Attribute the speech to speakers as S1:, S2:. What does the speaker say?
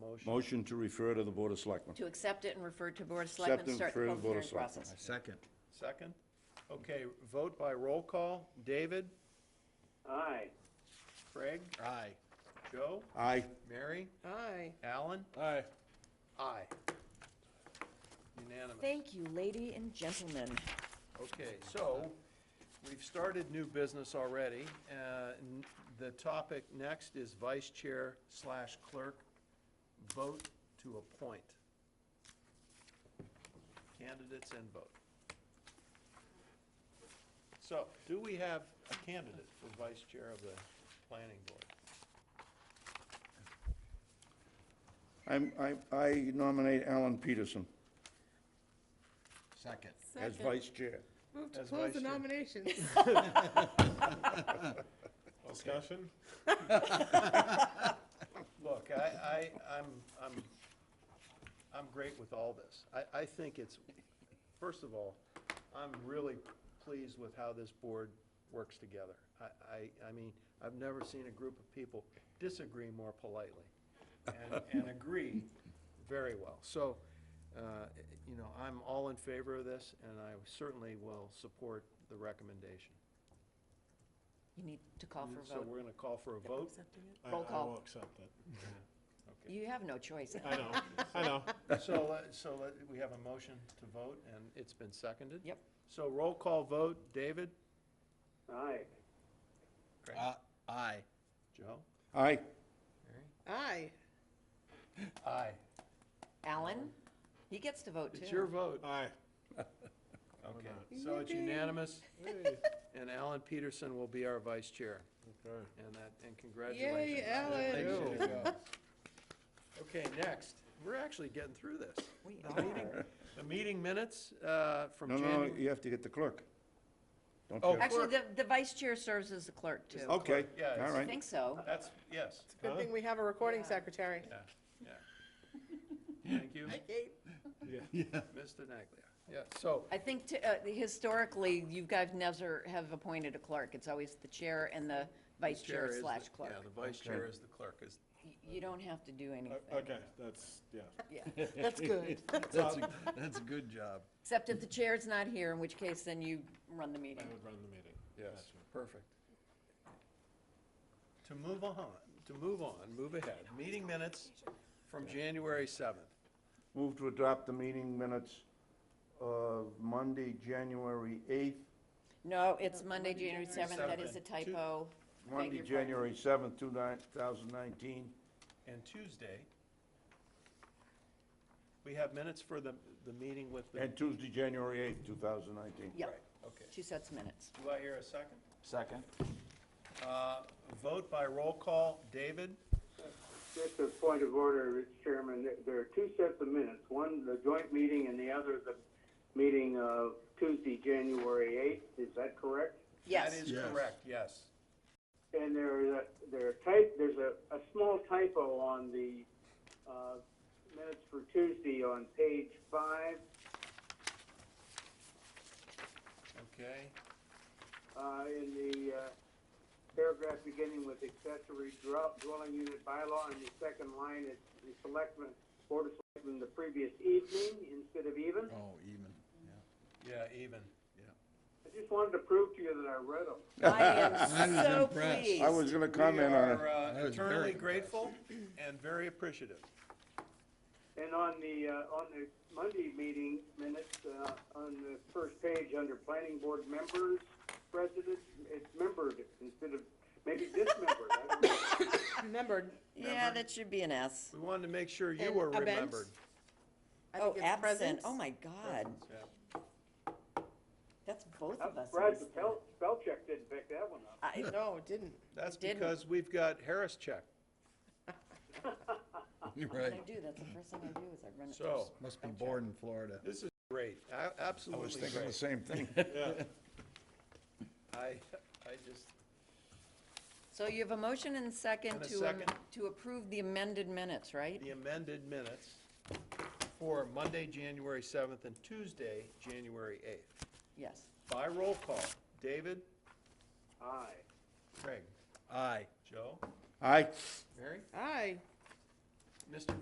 S1: motion.
S2: Motion to refer to the Board of Selectmen.
S3: to accept it and refer to Board of
S2: Accept
S3: Selectmen,
S2: and
S3: start the
S2: refer to
S3: public
S2: Board of
S3: hearing
S2: Selectmen.
S3: process.
S4: Second.
S1: Second? Okay, vote by roll call. David?
S5: Aye.
S1: Craig?
S4: Aye.
S1: Joe?
S2: Aye.
S1: Mary?
S6: Aye.
S1: Alan?
S4: Aye.
S1: Aye. Unanimous.
S3: Thank you, lady and gentlemen.
S1: Okay, so, we've started new business already. Uh, n- The topic next is vice chair slash clerk, vote to appoint. Candidates and vote. So, do we have a candidate for vice chair of the planning board?
S2: I'm, I, I nominate Alan Peterson
S4: Second.
S2: as vice chair.
S6: Move to
S1: As
S6: close the
S1: vice chair.
S6: nominations.
S1: Discussion? Look, I, I, I'm, I'm, I'm great with all this. I, I think it's, first of all, I'm really pleased with how this board works together. I, I, I mean, I've never seen a group of people disagree more politely and, and agree very well. So, uh, you know, I'm all in favor of this, and I certainly will support the recommendation.
S3: You need to call for a
S1: So Oh,
S3: vote.
S1: we're gonna call for a vote?
S7: I-
S3: Roll
S7: I
S3: call.
S7: will accept it.
S3: You have no choice.
S7: I know, I know.
S1: So, let- so let- we have a motion to vote, and it's been seconded?
S3: Yep.
S1: So roll call vote, David?
S5: Aye.
S4: Uh, aye.
S1: Joe?
S2: Aye.
S6: Aye.
S1: Aye.
S3: Alan, he gets to vote too.
S1: It's your vote.
S7: Aye.
S1: Oh, Okay, so it's unanimous, and Alan Peterson will be our vice chair,
S7: Okay.
S1: and that, and
S6: Yay,
S1: congratulations.
S6: Ellen.
S1: Okay, next, we're actually getting through this.
S3: We
S1: The meeting- The meeting minutes uh, from
S2: No, no,
S1: January.
S2: you have to get the clerk. Don't
S1: Oh.
S2: you?
S3: Actually, the, the vice chair serves as the clerk too. I
S2: Okay,
S1: Yeah,
S2: all
S1: it's-
S2: right.
S3: think so.
S1: That's, yes,
S6: Good thing we have a recording secretary.
S1: yeah, yeah. Thank you,
S7: Yeah.
S1: Mr. Naglia. Yeah, so,
S3: I think to- uh, historically, you guys never have appointed a clerk. It's always the chair and the vice chair
S1: is the-
S3: slash
S1: Yeah,
S3: clerk.
S1: the vice chair is the clerk, is,
S3: Y- You don't have to do anything.
S7: O- Okay, that's, yeah.
S3: Yeah.
S6: That's good.
S4: That's a, that's a good job.
S3: Except if the chair's not here, in which case then you run the
S7: I
S3: meeting.
S7: would run the meeting.
S1: yes, perfect. To move on, to move on, move ahead, meeting minutes from January seventh.
S2: Move to adopt the meeting minutes of Monday, January 8th,
S3: No, it's Monday, January 7th. That is a
S1: seventh. Two-
S3: typo. Beg
S2: Monday,
S3: your pardon.
S2: January 7th, 2019.
S1: And Tuesday, we have minutes for the, the meeting with the.
S2: And Tuesday, January 8th, 2019.
S3: Yep,
S1: Okay,
S3: two sets of minutes.
S1: do I hear a second?
S4: Second.
S1: Uh, vote by roll call, David?
S5: Just a point of order, Mr. Chairman, There- there are two sets of minutes, one the joint meeting and the other the meeting of Tuesday, January 8th, is that correct?
S3: Yes.
S1: That is correct, yes.
S5: And there is, a- there are type, there's a, a small typo on the, uh, minutes for Tuesday on page five.
S1: Okay,
S5: uh, in the uh, paragraph beginning with accessory dwell- dwelling unit bylaw, in the second line, it's the selectmen, board of selectmen the previous evening instead of even.
S4: Oh, even,
S1: yeah, even.
S5: I just wanted to prove to you that I read them.
S3: I
S4: I
S3: am
S4: was
S3: so
S4: impressed.
S3: pleased.
S2: I was gonna comment on it.
S1: We are uh,
S4: That was very
S1: eternally
S4: impressive.
S1: grateful and very appreciative.
S5: And on the, uh, on the Monday meeting minutes, uh, on the first page, under planning board members, president, it's membered instead of, maybe dismembered, I don't know.
S6: Remembered.
S3: Yeah, that should be an S.
S1: We wanted to make sure you
S6: And
S1: were
S6: event?
S1: remembered.
S6: I
S3: Oh,
S6: think it's
S3: absent.
S6: presence.
S3: Oh, my God.
S1: Yeah.
S3: That's both of us.
S5: Brad
S3: missed that.
S5: Spell, Spellcheck didn't pick that one up.
S3: I-
S6: No, it didn't.
S1: That's
S3: Didn't.
S1: because we've got Harris check.
S4: yeah.
S3: I
S4: Right.
S3: do, that's the first thing I do is I run it.
S1: So,
S4: Must be born in Florida.
S1: this is great, A-
S2: I was
S1: absolutely
S2: thinking the
S1: great.
S2: same thing.
S1: I, I just,
S3: So you have a motion and second
S1: And a
S3: to, am-
S1: second.
S3: to approve the amended minutes, right?
S1: the amended minutes for Monday, January 7th, and Tuesday, January 8th.
S3: Yes.
S1: By roll call, David,
S5: Aye.
S1: Craig,
S4: Aye.
S1: Joe,
S2: Aye.
S1: Mary,
S6: Aye.
S1: Mr.